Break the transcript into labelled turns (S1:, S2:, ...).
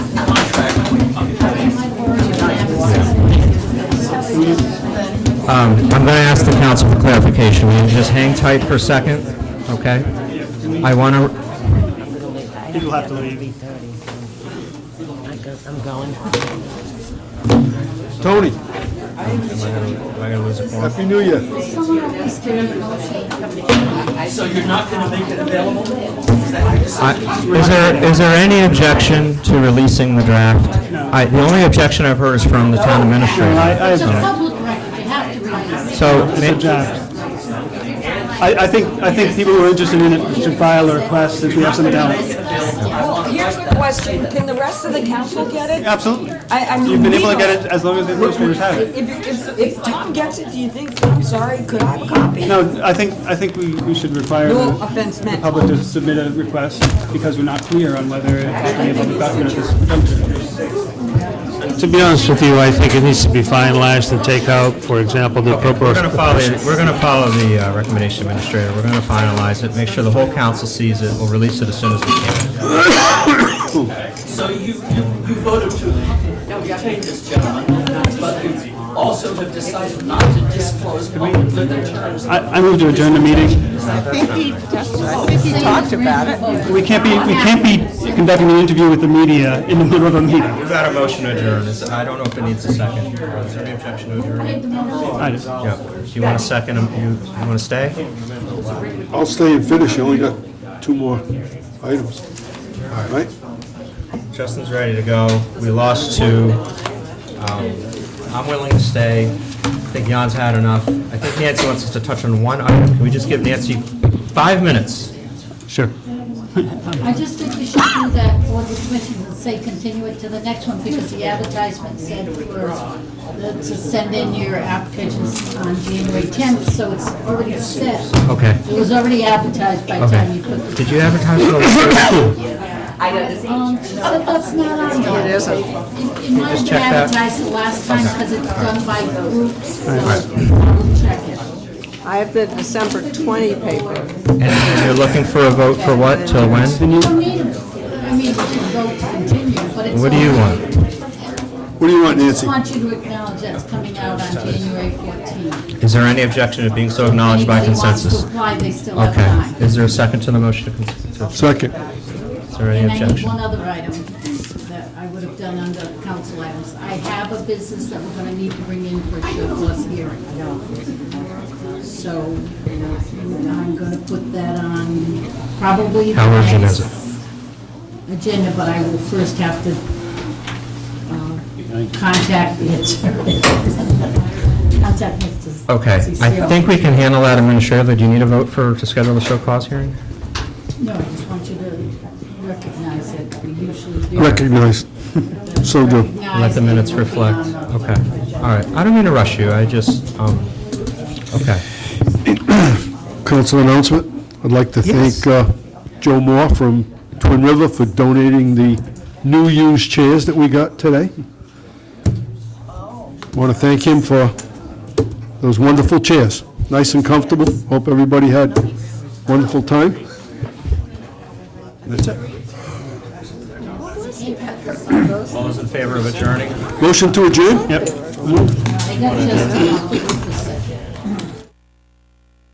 S1: Um, I'm going to ask the council for clarification. Will you just hang tight for a second? Okay? I want to,
S2: You'll have to leave.
S3: I guess I'm going.
S4: Tony,
S1: am I going to lose a form?
S4: Happy New Year.
S1: I- Is there, is there any objection to releasing the draft? I- The only objection I've heard is from the town administrator.
S4: I-
S5: It's a public record, you have to release it.
S1: So, may-
S2: I, I think, I think people who are interested in it should file a request since we have some talent.
S6: Well, here's a question, can the rest of the council get it?
S2: Absolutely.
S6: I, I mean,
S2: You've been
S6: we
S2: able to
S6: don't-
S2: get it as long as the administrators have it.
S6: If, if, if Tom gets it, do you think, I'm sorry, could I have a copy?
S2: No, I think, I think we, we should require
S6: No
S2: the
S6: offense
S2: the
S6: meant.
S2: public to submit a request because we're not clear on whether it has to be a public document at this juncture.
S7: To be honest with you, I think it needs to be finalized and take out, for example, the
S1: we're going to follow,
S7: appropriation.
S1: we're going to follow the uh, recommendation administrator. We're going to finalize it, make sure the whole council sees it. We'll release it as soon as we can.
S8: So you, you, you voted to take this, gentlemen, but you also have decided not to disclose publicly the terms.
S2: I, I move to adjourn the meeting.
S6: I think he talked about it.
S2: We can't be, we can't be conducting an interview with the media in the middle of a meeting.
S1: We've got a motion to adjourn. Is- I don't know if it needs a second. Is there any objection to adjourn?
S2: I just-
S1: Yeah. Do you want a second? um, You you want to stay?
S4: I'll stay and finish, you only got two more items. All right?
S1: Justin's ready to go. We lost two. Um, I'm willing to stay. I think Jan's had enough. I think Nancy wants us to touch on one item. Can we just give Nancy five minutes?
S2: Sure.
S5: I just think you should do that for the commission and say continue it to the next one because the advertisement said for, the- to send in your applications on January 10th, so it's already set.
S1: Okay.
S5: It was already advertised by the time you put the.
S1: Did you advertise for the
S5: Um, but that's not on there. It isn't. It might have been
S1: check that.
S5: advertised the last time because it's done by groups, so I'll check it.
S3: I have the December 20 paper.
S1: And you're looking for a vote for what, till when?
S5: You don't need to, I mean, you can vote to continue, but it's.
S1: What do you
S5: on-
S1: want?
S4: What do you want,
S5: I just
S4: Nancy?
S5: want you to acknowledge that's coming out on January 14th.
S1: Is there any objection to being so acknowledged by consensus?
S5: Anybody wants to apply, they still have time.
S1: Okay. Is there a second to the motion? to cons-
S4: Second.
S1: Is there any
S5: And I need
S1: objection?
S5: one other item that I would have done under council items. I have a business that we're gonna need to bring in for a surplus hearing. So I'm gonna put that on probably the
S1: How urgent is
S5: next agenda, but I will first have to uh, contact the attorney. Contact Mr.
S1: Okay. I
S5: Cecile.
S1: think we can handle that administratively. Do you need a vote for, to schedule the show cause hearing?
S5: No, I just want you to recognize it. We usually do.
S4: Recognized. So do.
S1: Let the minutes reflect. Okay. All right. I don't mean to rush you. I just, um, okay.
S4: Council announcement, I'd like to thank uh, Joe Moore from Twin River for donating the new used chairs that we got today. Want to thank him for those wonderful chairs, nice and comfortable. Hope everybody had wonderful time. That's it.
S1: All those in favor of adjourning?
S4: Motion to adjourn?
S5: I got just enough for